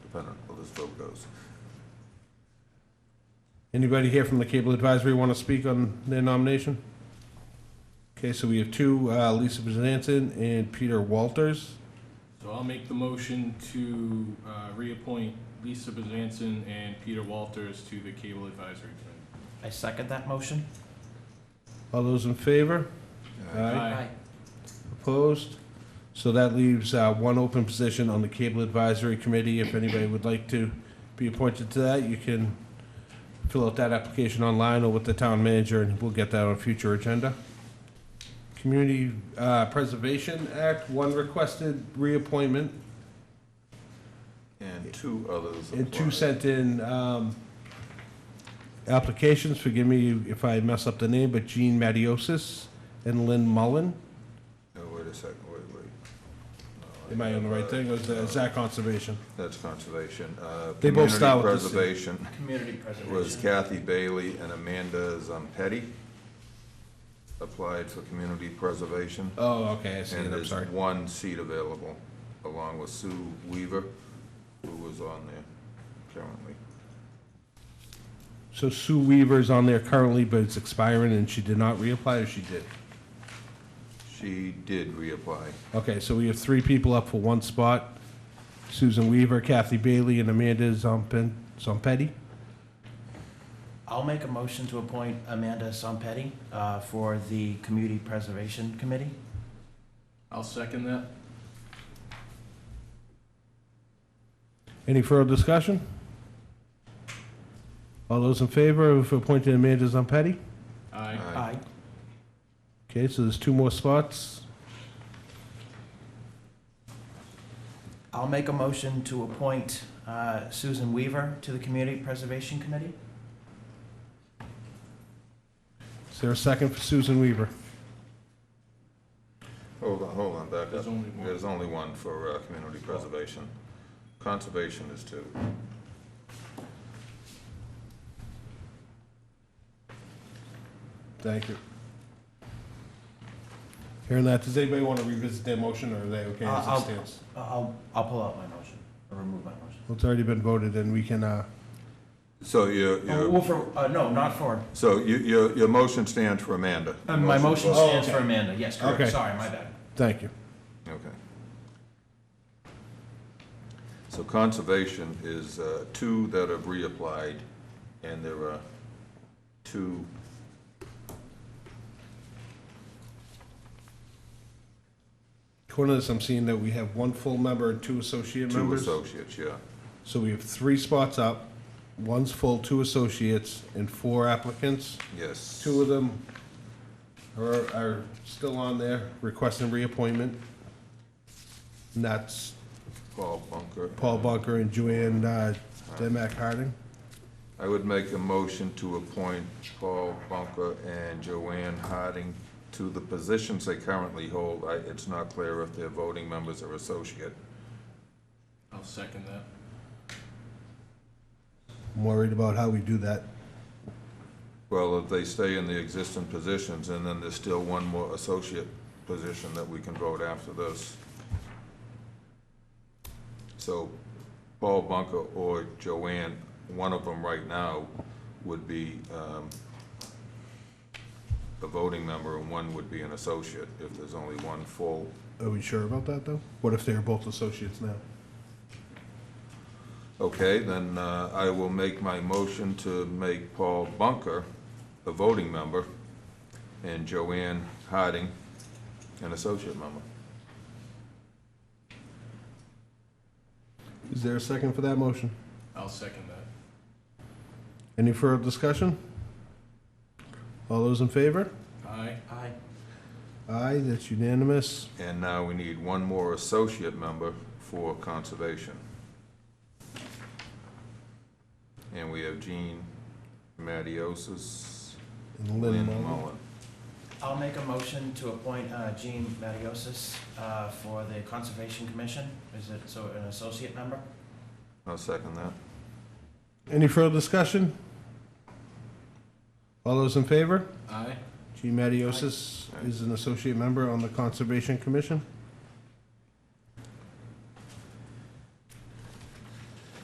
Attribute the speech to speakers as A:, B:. A: dependent how this vote goes.
B: Anybody here from the Cable Advisory want to speak on their nomination? Okay, so we have two, uh, Lisa Bezanson and Peter Walters.
C: So I'll make the motion to uh, reappoint Lisa Bezanson and Peter Walters to the Cable Advisory Committee.
D: I second that motion.
B: All those in favor? Uh,
C: Aye.
B: Opposed? So that leaves uh, one open position on the Cable Advisory Committee. If anybody would like to be appointed to that, you can fill out that application online or with the town manager, and we'll get that on a future agenda. Community uh, Preservation Act, one requested reappointment,
A: And two others.
B: and two
A: applied.
B: sent in um, applications. Forgive me if I mess up the name, but Jean Matiosis and Lynn Mullen.
A: No, wait a second, wait, wait.
B: Am I on the right thing, or is that is that conservation?
A: That's conservation. Uh,
B: They both start with the C.
A: Community preservation
D: Community
A: was
D: preservation.
A: Kathy Bailey and Amanda Zampetti. Applied for community preservation.
B: Oh, okay, I see it,
A: And
B: I'm
A: there's
B: sorry.
A: one seat available, along with Sue Weaver, who was on there currently.
B: So Sue Weaver's on there currently, but it's expiring, and she did not reapply, or she did?
A: She did reapply.
B: Okay, so we have three people up for one spot. Susan Weaver, Kathy Bailey, and Amanda Zompen, Zompetti.
D: I'll make a motion to appoint Amanda Sompetti uh, for the Community Preservation Committee.
C: I'll second that.
B: Any further discussion? All those in favor of appointing Amanda Zompetti?
C: Aye.
A: Uh,
D: Aye.
B: Okay, so there's two more spots.
D: I'll make a motion to appoint uh, Susan Weaver to the Community Preservation Committee.
B: Is there a second for Susan Weaver?
A: Hold on, hold on, back up.
C: There's only one.
A: There's only one for uh, community preservation. Conservation is two.
B: Thank you. Hearing that, does anybody want to revisit their motion, or are they okay
D: Uh,
B: as
D: I'll-
B: it stands?
D: I- I'll, I'll pull out my motion, or remove my motion.
B: Well, It's already been voted, and we can, uh,
A: So your,
D: Oh,
A: your,
D: Well, for, uh, no, not for,
A: so your, your, your motion stands for Amanda?
D: uh, my motion
A: was-
B: Oh,
D: stands for
B: okay.
D: Amanda, yes, correct,
B: Okay.
D: sorry, my bad.
B: thank you.
A: Okay. So conservation is uh, two that have reapplied, and there are two.
B: According to this, I'm seeing that we have one full member and two associate
A: Two
B: members.
A: associates, yeah.
B: So we have three spots up, one's full, two associates, and four applicants.
A: Yes.
B: Two of them are, are still on there requesting reappointment. And that's
A: Paul Bunker.
B: Paul Bunker and Joanne, uh, Demac Harding.
A: I would make a motion to appoint Paul Bunker and Joanne Harding to the positions they currently hold. I, it's not clear if they're voting members or associate.
C: I'll second that.
B: I'm worried about how we do that.
A: Well, if they stay in the existing positions, and then there's still one more associate position that we can vote after this. So Paul Bunker or Joanne, one of them right now would be um, a voting member and one would be an associate, if there's only one full.
B: Are we sure about that, though? What if they're both associates now?
A: Okay, then uh, I will make my motion to make Paul Bunker a voting member and Joanne Harding an associate member.
B: Is there a second for that motion?
C: I'll second that.
B: Any further discussion? All those in favor?
C: Aye.
D: Aye.
B: Aye, that's unanimous.
A: And now we need one more associate member for conservation. And we have Jean Matiosis,
B: And
A: Lynn
B: Lynn Mullin.
A: Mullen.
D: I'll make a motion to appoint uh, Jean Matiosis uh, for the Conservation Commission. Is it, so an associate member?
A: I'll second that.
B: Any further discussion? All those in favor?
C: Aye.
B: G. Matiosis is an associate member on the Conservation Commission.